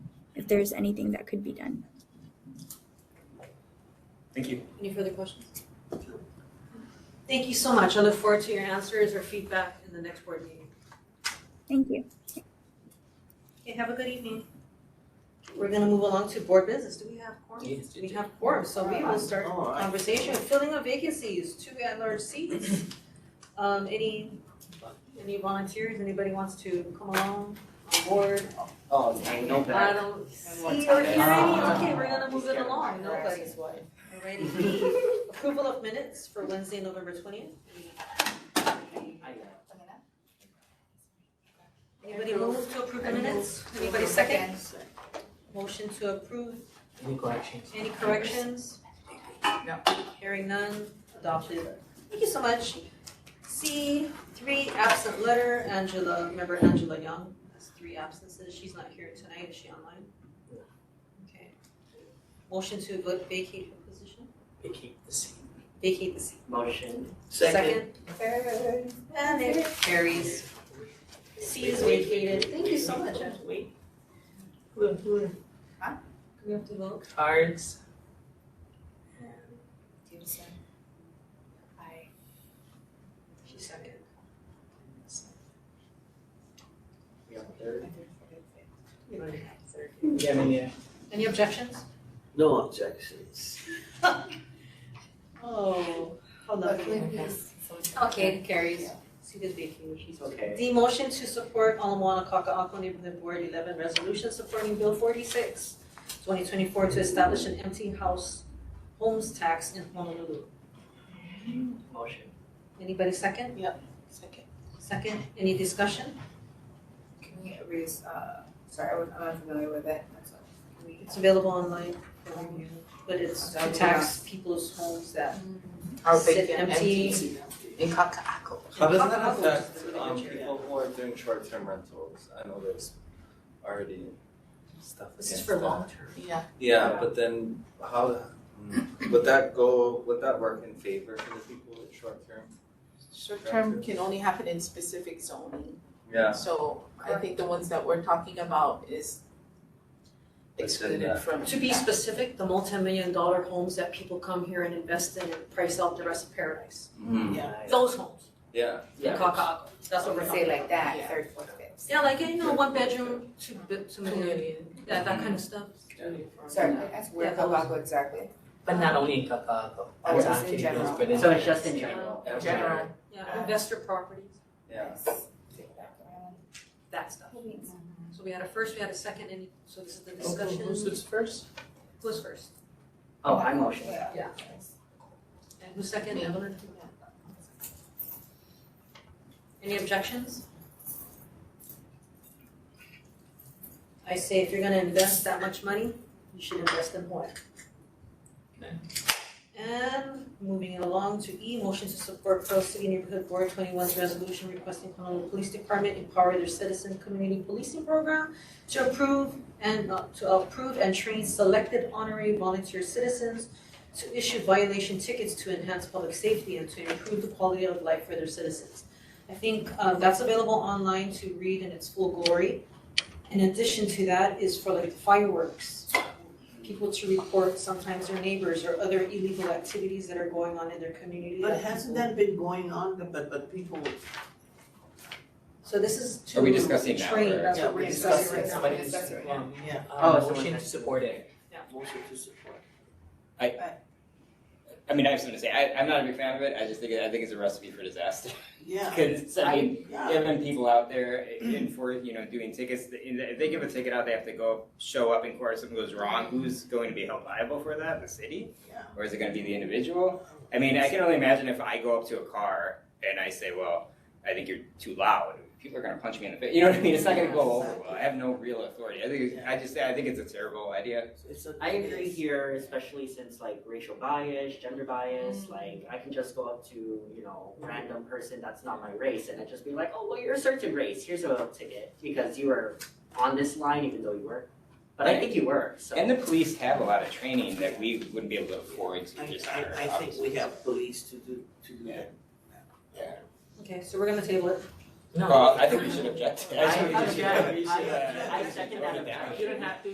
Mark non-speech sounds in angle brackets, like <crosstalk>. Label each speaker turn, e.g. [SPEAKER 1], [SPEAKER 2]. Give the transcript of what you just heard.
[SPEAKER 1] there's anything that could be done.
[SPEAKER 2] Thank you.
[SPEAKER 3] Any further questions? Thank you so much. I look forward to your answers or feedback in the next board meeting.
[SPEAKER 1] Thank you.
[SPEAKER 3] Okay, have a good evening. We're gonna move along to board business. Do we have quorum?
[SPEAKER 4] Yes, you
[SPEAKER 3] We
[SPEAKER 4] do.
[SPEAKER 3] have quorum, so we will start
[SPEAKER 4] Oh, I-
[SPEAKER 3] conversation, filling of vacancies, two at-large seats. Um, any, any volunteers, anybody wants to come along, on board?
[SPEAKER 4] Oh, I know
[SPEAKER 3] I
[SPEAKER 4] that.
[SPEAKER 3] don't see
[SPEAKER 4] what's
[SPEAKER 3] or hear any,
[SPEAKER 4] happening?
[SPEAKER 3] okay, we're gonna move it along, no
[SPEAKER 5] Nobody's
[SPEAKER 3] worries.
[SPEAKER 5] wife.
[SPEAKER 3] Alrighty, the approval of minutes for Wednesday, November twentieth.
[SPEAKER 4] I know.
[SPEAKER 3] Anybody move to approve the minutes? Anybody second? Motion to approve,
[SPEAKER 4] Any corrections?
[SPEAKER 3] any corrections?
[SPEAKER 5] No.
[SPEAKER 3] Hearing none, adopted. Thank you so much. C, three absent letter, Angela, remember Angela Young, that's three absences, she's not here tonight, is she online?
[SPEAKER 4] No.
[SPEAKER 3] Okay. Motion to va- vacate her position,
[SPEAKER 4] They keep the same
[SPEAKER 3] vacate the seat.
[SPEAKER 4] motion.
[SPEAKER 3] Second. And it carries. C is vacated, thank you so much, Angela.
[SPEAKER 4] Wait. Look, look.
[SPEAKER 3] Do we have to vote?
[SPEAKER 4] Cards.
[SPEAKER 5] Stevenson. Aye.
[SPEAKER 3] She's second.
[SPEAKER 4] We have third.
[SPEAKER 5] Third.
[SPEAKER 4] Yeah, I mean, yeah.
[SPEAKER 3] Any objections?
[SPEAKER 6] No objections.
[SPEAKER 3] Oh, how lovely. Okay, it carries. See this vacation, she's.
[SPEAKER 4] It's okay.
[SPEAKER 3] The motion to support Alamoana Kaka'ako Neighborhood Board eleven resolution supporting Bill 46, 2024, to establish an empty house homes tax in Honolulu.
[SPEAKER 4] Motion.
[SPEAKER 3] Anybody second? Yep.
[SPEAKER 5] Second.
[SPEAKER 3] Second, any discussion?
[SPEAKER 5] Can we erase, uh, sorry, I was, I'm unfamiliar with it, that's all. Can we-
[SPEAKER 3] It's available online, but it's to tax people's homes that.
[SPEAKER 5] How
[SPEAKER 3] Sit
[SPEAKER 5] big and
[SPEAKER 3] empty.
[SPEAKER 5] empty in Kaka'ako.
[SPEAKER 6] How does that
[SPEAKER 3] Kaka'ako is
[SPEAKER 6] affect
[SPEAKER 3] the
[SPEAKER 6] um
[SPEAKER 3] major, yeah.
[SPEAKER 6] people who are doing short term rentals? I know there's already stuff against that.
[SPEAKER 5] This is for long term. Yeah.
[SPEAKER 6] Yeah, but then how mm, would that go, would that work in favor for the people with short term?
[SPEAKER 5] Short term can only happen in specific zoning.
[SPEAKER 6] Yeah,
[SPEAKER 5] So I think the ones that we're talking about is
[SPEAKER 6] Let's say
[SPEAKER 5] excluded
[SPEAKER 6] that.
[SPEAKER 5] from.
[SPEAKER 3] To be specific, the multi-million dollar homes that people come here and invest in and price out the rest of paradise.
[SPEAKER 7] Mm-hmm.
[SPEAKER 6] Mhm.
[SPEAKER 4] Yeah.
[SPEAKER 3] Those homes
[SPEAKER 6] yeah,
[SPEAKER 3] in Kaka'ako, that's what we're talking about.
[SPEAKER 5] Yeah.
[SPEAKER 8] third, fourth, fifth.
[SPEAKER 3] Yeah, like, you know, one bedroom, two bed, two million,
[SPEAKER 5] Community.
[SPEAKER 3] that, that kind of stuff.
[SPEAKER 8] Sorry, that's where
[SPEAKER 3] Yeah, that was-
[SPEAKER 8] Kabako exactly.
[SPEAKER 4] But not only in Kakako,
[SPEAKER 8] Oh,
[SPEAKER 4] it's
[SPEAKER 8] just in
[SPEAKER 4] actually
[SPEAKER 8] general.
[SPEAKER 4] those, but in.
[SPEAKER 7] So it's just in general.
[SPEAKER 6] yeah.
[SPEAKER 5] General.
[SPEAKER 3] Yeah, investor properties,
[SPEAKER 6] Yeah.
[SPEAKER 8] Yes. Take that one.
[SPEAKER 3] that stuff. So we had a first, we had a second, and so this is the
[SPEAKER 5] Who-
[SPEAKER 3] discussion.
[SPEAKER 5] Who's who's first?
[SPEAKER 3] Who's first?
[SPEAKER 7] Oh, I motion.
[SPEAKER 3] Yeah. And who's second,
[SPEAKER 5] Me.
[SPEAKER 3] Evelyn? Any objections? I say if you're gonna invest that much money, you should invest in Hawaii.
[SPEAKER 4] Okay.
[SPEAKER 3] And moving it along to E, motion to support Pearl City Neighborhood Board 21's resolution requesting Honolulu Police Department empower their citizen community policing program to approve and uh, to approve and train selected honorary volunteer citizens to issue violation tickets to enhance public safety and to improve the quality of life for their citizens. I think uh, that's available online to read in its full glory. In addition to that is for like fireworks, people to report sometimes their neighbors or other illegal activities that are going on in their community.
[SPEAKER 9] But hasn't that been going on, but, but people,
[SPEAKER 3] So this is to
[SPEAKER 7] Are we discussing now,
[SPEAKER 3] train,
[SPEAKER 7] or-
[SPEAKER 3] that's
[SPEAKER 9] Yeah,
[SPEAKER 3] what we're
[SPEAKER 9] we're
[SPEAKER 3] discussing
[SPEAKER 9] discussing
[SPEAKER 3] right now.
[SPEAKER 4] Somebody
[SPEAKER 5] Yes, that's right.
[SPEAKER 4] um,
[SPEAKER 9] yeah,
[SPEAKER 4] uh,
[SPEAKER 7] Oh, someone
[SPEAKER 4] motion to
[SPEAKER 7] has-
[SPEAKER 4] support it.
[SPEAKER 9] motion to support?
[SPEAKER 7] I mean, I have something to say. I, I'm not a big fan of it. I just think it, I think it's a recipe for disaster. <laughs>
[SPEAKER 9] Yeah,
[SPEAKER 7] Because I mean,
[SPEAKER 9] yeah,
[SPEAKER 7] having people out there in for you know doing tickets, if they give a ticket out, they have to go show up in court. If something goes wrong, who's going to be held liable for that? The city,
[SPEAKER 9] Yeah.
[SPEAKER 7] or is it going to be the individual? I mean, I can only imagine if I go up to a car and I say, "Well, I think you're too loud." People are going to punch me in the face. You know what I mean? It's not going to go over well. I have no real authority. I think I just I think it's a terrible idea.
[SPEAKER 9] it's a.
[SPEAKER 4] I agree here, especially since like racial bias, gender bias, like I can just go up to, you know, random person that's not my race and I just be like, oh, well, you're a certain race, here's a ticket because you were on this line even though you weren't. But I think you were, so.
[SPEAKER 7] And the police have a lot of training that we wouldn't be able to afford to
[SPEAKER 9] I,
[SPEAKER 7] just hire.
[SPEAKER 9] I, I think we have police to do, to do that.
[SPEAKER 3] Okay, so we're gonna table it.
[SPEAKER 4] No.
[SPEAKER 7] Uh, Well, I think we should object.
[SPEAKER 4] I
[SPEAKER 7] think we should-
[SPEAKER 4] object.
[SPEAKER 7] we should, uh, <laughs>
[SPEAKER 4] I object. I second that.
[SPEAKER 7] Yeah.
[SPEAKER 4] You don't have to